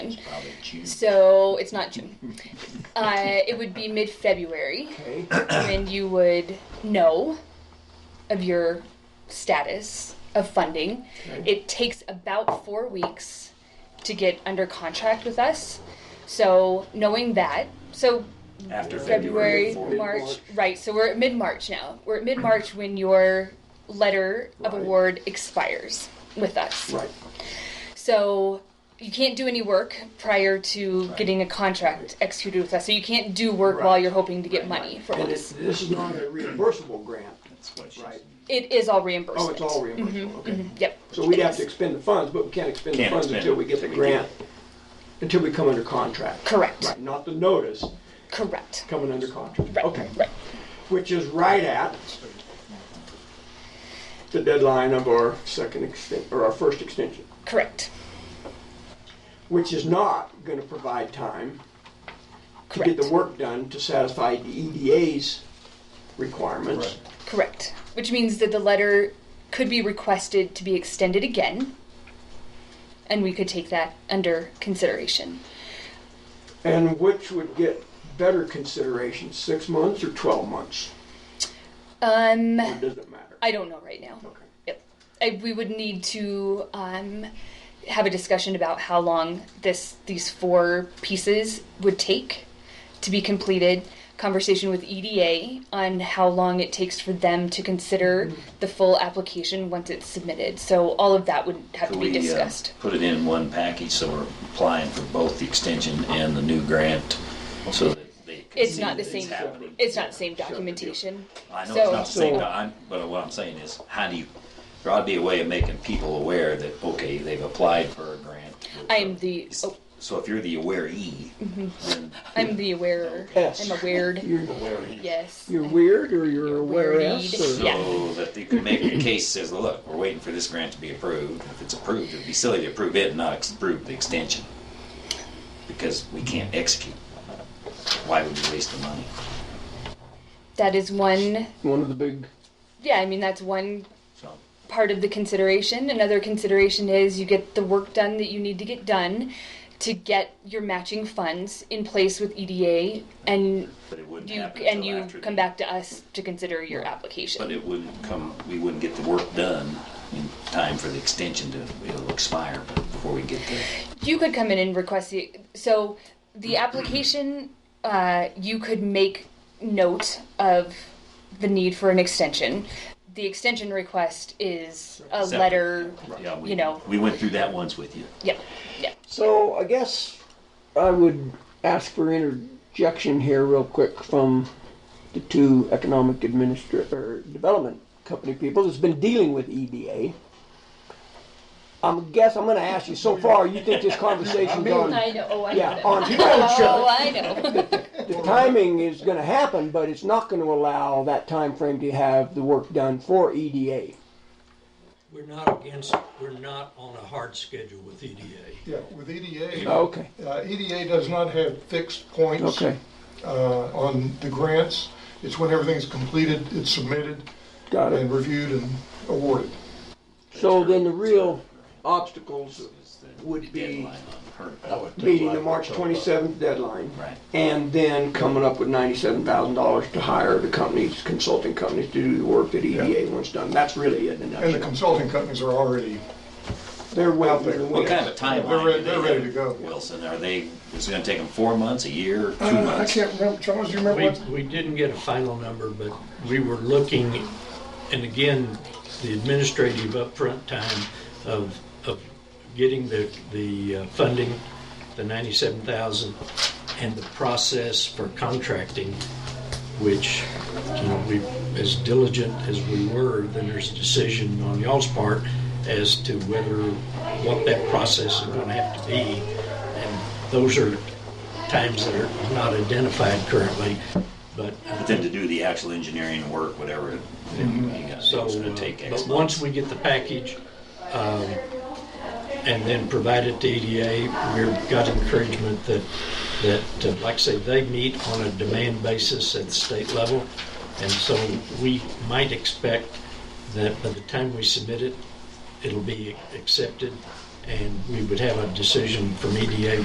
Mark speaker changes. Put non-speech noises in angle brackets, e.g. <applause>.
Speaker 1: June.
Speaker 2: So it's not
Speaker 1: <laughs>
Speaker 2: June. Uh, it would be mid February
Speaker 1: Okay.
Speaker 2: when you would know of your status of funding. It takes about four weeks to get under contract with us. So knowing that, so
Speaker 1: After
Speaker 2: February,
Speaker 1: February. forward.
Speaker 2: March, right? So we're at mid March now. We're at mid March when your letter of
Speaker 1: Right.
Speaker 2: award expires with us.
Speaker 1: Right.
Speaker 2: So you can't do any work prior to getting a contract executed with us. So you can't do work while
Speaker 1: Right.
Speaker 2: you're hoping to get money from
Speaker 1: And
Speaker 2: us.
Speaker 1: this, this is not a reimbursable grant,
Speaker 3: That's what she
Speaker 1: right?
Speaker 3: said.
Speaker 2: It is all reimbursement.
Speaker 1: Oh, it's all
Speaker 2: Mm-hmm.
Speaker 1: reimbursable, okay.
Speaker 2: Yep.
Speaker 1: So we'd have to expend the funds, but we can't expend the
Speaker 3: Can't
Speaker 1: funds
Speaker 3: expend
Speaker 1: until we get the
Speaker 3: until we get
Speaker 1: grant, until we come under contract.
Speaker 2: Correct.
Speaker 1: Right, not the notice,
Speaker 2: Correct.
Speaker 1: coming under contract.
Speaker 2: Right.
Speaker 1: Okay.
Speaker 2: Right.
Speaker 1: Which is right at the deadline of our second extent, or our first extension,
Speaker 2: Correct.
Speaker 1: which is not gonna provide time to
Speaker 2: Correct.
Speaker 1: get the work done to satisfy the EDA's requirements.
Speaker 2: Correct. Which means that the letter could be requested to be extended again, and we could take that under consideration.
Speaker 1: And which would get better consideration, six months or 12 months?
Speaker 2: Um,
Speaker 1: Or does it matter?
Speaker 2: I don't know right now.
Speaker 1: Okay.
Speaker 2: Yep. I, we would need to um, have a discussion about how long this these four pieces would take to be completed. Conversation with EDA on how long it takes for them to consider
Speaker 3: Mm-hmm.
Speaker 2: the full application once it's submitted. So all of that would have to
Speaker 3: Could
Speaker 2: be
Speaker 3: we, uh,
Speaker 2: discussed.
Speaker 3: Put it in one package, so we're applying for both the extension and the new grant, so that they. can
Speaker 2: It's
Speaker 3: see
Speaker 2: not the
Speaker 3: that
Speaker 2: same.
Speaker 3: happening.
Speaker 2: It's not the same documentation.
Speaker 3: I know
Speaker 2: so,
Speaker 3: it's not the same,
Speaker 1: So-
Speaker 3: but I'm, but what I'm saying is, how do you, there ought to be a way of making people aware that, okay, they've applied for a grant.
Speaker 2: I am the Mm-hmm. oh,
Speaker 3: So if you're the awaree, then
Speaker 2: I'm the awarer.
Speaker 1: Yes.
Speaker 2: I'm awared.
Speaker 1: You're weird.
Speaker 2: Yes.
Speaker 4: You're weird or you're aware
Speaker 2: Weird.
Speaker 4: or
Speaker 2: Yeah.
Speaker 3: so that they could make a case says, well, look, we're waiting for this grant to be approved. If it's approved, it'd be silly to approve it and not ex- approve the extension because we can't execute. Why would we waste the money?
Speaker 2: That is one.
Speaker 4: one of the big
Speaker 2: Yeah. I mean that's one
Speaker 3: So
Speaker 2: part of the consideration. Another consideration is you get the work done that you need to get done to get your matching funds in place with EDA and
Speaker 3: But it wouldn't
Speaker 2: you
Speaker 3: happen
Speaker 2: and
Speaker 3: until
Speaker 2: you
Speaker 3: after
Speaker 2: come
Speaker 3: the-
Speaker 2: back to us to consider your
Speaker 3: But
Speaker 2: application.
Speaker 3: it wouldn't come, we wouldn't get the work done in time for the extension to, it'll expire before we get there.
Speaker 2: You could come in and request the so
Speaker 3: <clears throat>
Speaker 2: the application uh, you could make note of the need for an extension. The extension request is a
Speaker 3: Separate.
Speaker 2: letter,
Speaker 3: Yeah, we-
Speaker 2: you know.
Speaker 3: We went through that once with you.
Speaker 2: Yeah, yeah.
Speaker 4: So I guess I would ask for interjection here real quick from the two economic administra- or development company people that's been dealing with EDA. I'm guess I'm going to ask you. So far, you think
Speaker 2: <laughs>
Speaker 4: this conversation's on
Speaker 2: I know. Oh, I
Speaker 4: yeah
Speaker 2: know.
Speaker 4: on bullshit.
Speaker 2: Oh, I know.
Speaker 4: The timing is going to happen, but it's not going to allow that time frame to have the work done for
Speaker 1: E
Speaker 4: EDA.
Speaker 5: We're not against, we're not on a hard schedule with E EDA.
Speaker 6: Yeah, with EDA, uh,
Speaker 4: Okay.
Speaker 6: EDA does not have fixed points
Speaker 4: Okay.
Speaker 6: uh, on the grants. It's when everything's completed, it's submitted
Speaker 4: Got it.
Speaker 6: and reviewed and awarded.
Speaker 4: So then the real obstacles
Speaker 1: Would be
Speaker 3: Deadline on her.
Speaker 1: meeting the March 27th deadline.
Speaker 3: Right.
Speaker 1: And then coming up with $97,000 to hire the companies, consulting companies to do the work that EDA wants done. That's really it in a
Speaker 6: And the
Speaker 1: nutshell.
Speaker 6: consulting companies are already,
Speaker 1: They're well,
Speaker 6: Out there.
Speaker 3: What kind of a
Speaker 6: They're
Speaker 3: timeline
Speaker 6: ready-
Speaker 3: do
Speaker 6: they're
Speaker 3: they
Speaker 6: ready
Speaker 3: have,
Speaker 6: to go.
Speaker 3: Wilson, are they, is it gonna take them four months, a year, two
Speaker 6: Uh, I
Speaker 3: months?
Speaker 6: can't remember, Charles, do you remember
Speaker 5: We,
Speaker 6: what?
Speaker 5: we didn't get a final number, but we were looking, and again, the administrative upfront time of, of getting the, the uh, funding, the ninety-seven thousand, and the process for contracting, which, you know, we, as diligent as we were, then there's a decision on y'all's part as to whether, what that process is gonna have to be. And those are times that are not identified currently, but.
Speaker 3: But then to do the actual engineering work, whatever, you know, you gotta do,
Speaker 5: So,
Speaker 3: it's gonna
Speaker 5: uh,
Speaker 3: take X
Speaker 5: but
Speaker 3: months.
Speaker 5: once we get the package, um, and then provide it to EDA, we've got encouragement that, that, uh, like I say, they meet on a demand basis at the state level. And so we might expect that by the time we submit it, it'll be accepted, and we would have a decision from EDA